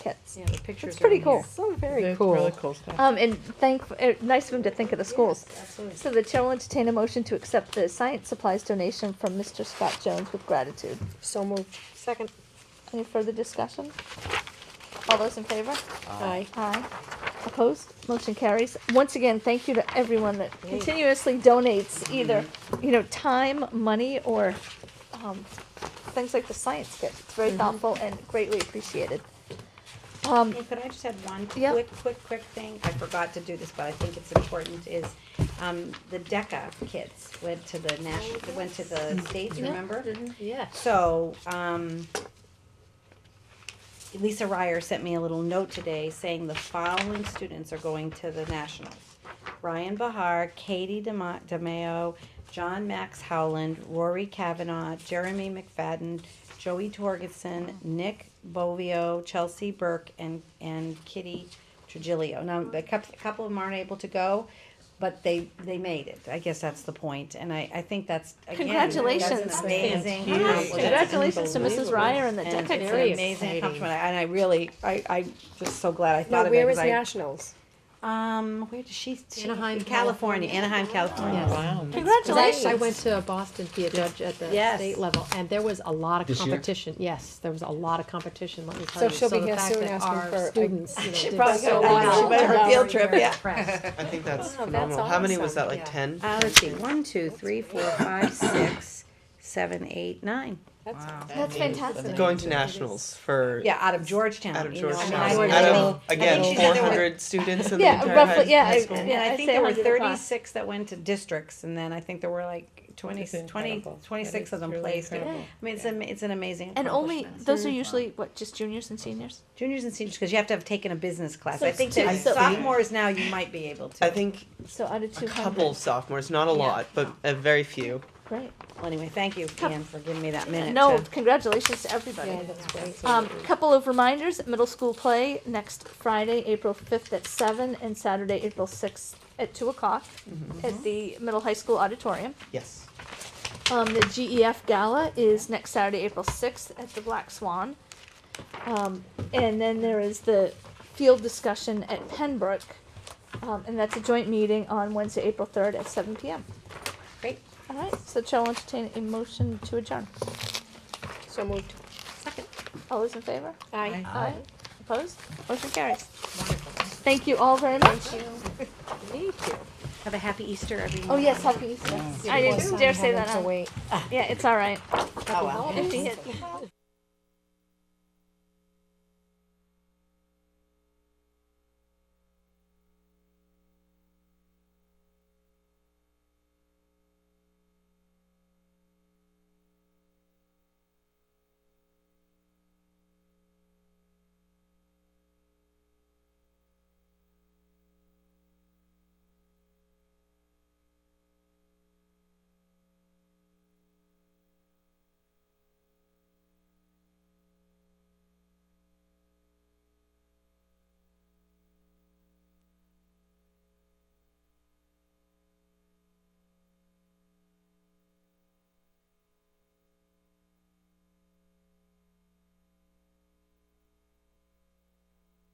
Yeah, the pictures. It's are pretty in cool. here. So very It's cool. Really cool stuff. Um, and thank, uh, nice of him to think of the schools. Absolutely. So the chair will entertain a motion to accept the science supplies donation from Mr. Scott Jones with gratitude. So moved. Second. Any further discussion? All those in favor? Aye. Aye. Opposed? Motion carries. Once again, thank you to everyone that continuously donates either, you know, time, money, or, um, things like the science kit. It's very thoughtful and greatly appreciated. Um, Hey, Could I just add one Yeah. quick, quick, quick thing? I forgot to do this, but I think it's important, is, um, the DECA kids went to the national, went to the states, Mm-hmm. Yeah. remember? Yeah. So, um, Lisa Ryer sent me a little note today saying the following students are going to the nationals. Ryan Bahar, Katie DeMa- DeMeo, John Max Howland, Rory Kavanaugh, Jeremy McFadden, Joey Torgeson, Nick Bovio, Chelsea Burke, and, and Kitty Trigilio. Now, a couple, a couple of them aren't able to go, but they, they made it. I guess that's the point. And I, I think that's, again, that's an Congratulations. amazing. Huge. accomplishment. Congratulations to Mrs. Ryer and the And Deca it's very an team. amazing exciting. accomplishment, and I really, I, I'm just so glad I thought Now, of it. where is 'cause I, Nationals? um, where did she? she- Anaheim, California, Anaheim, California. Wow. Cause Congratulations. I, I went to Boston to be a judge at the Yes. state level, and there was a lot of This year? competition. Yes, there was a lot of competition. Let me tell So you. she'll be the here fact soon that asking our for a- students. you know, uh, She did probably so got- I well. think she went on her field trip, Very yeah. impressed. I think that's Oh, Wow, that's phenomenal. How many was awesome. that? Like Yeah. ten? Uh, let's see, one, two, three, four, five, six, seven, eight, nine. That's fantastic. Going to nationals for Yeah, out of Georgetown. out of you know, I mean, Georgetown. I would out really- of I again think she said four there were- hundred students in Yeah, the entire roughly, high- yeah, high I- school. yeah. And I I'd think say there were 100 across. thirty-six that went to districts, and then I think there were like 20 That's 20 incredible. 26 That of is them really placed. I incredible. mean, it's an, it's an amazing And only, accomplishment. those are usually, what, just juniors and seniors? Juniors and seniors, because you have to have taken a business class. So I think two- that so- sophomores now, you might be able to. I think So under two a hundred. couple sophomores, not a lot, but a very few. Great. Well, anyway, thank you, Ian, for giving me that minute. No, to- congratulations to everybody. Yeah, that's great. Um, couple of reminders, middle school play next Friday, April fifth at seven, and Saturday, April sixth at two o'clock Mm-hmm. at the middle high school auditorium. Yes. Um, the GEF gala is next Saturday, April sixth at the Black Swan. Um, and then there is the field discussion at Pembroke, um, and that's a joint meeting on Wednesday, April third at seven PM. Great. All right, so Chair will entertain a motion to adjourn. So moved. All those in favor? Aye. Aye. Opposed? Motion carries. Thank you all very much. Thank you. Have a happy Easter, everyone. Oh, yes, happy Easter. I didn't dare say that. out. Yeah, it's all right. Oh, well. If you hit-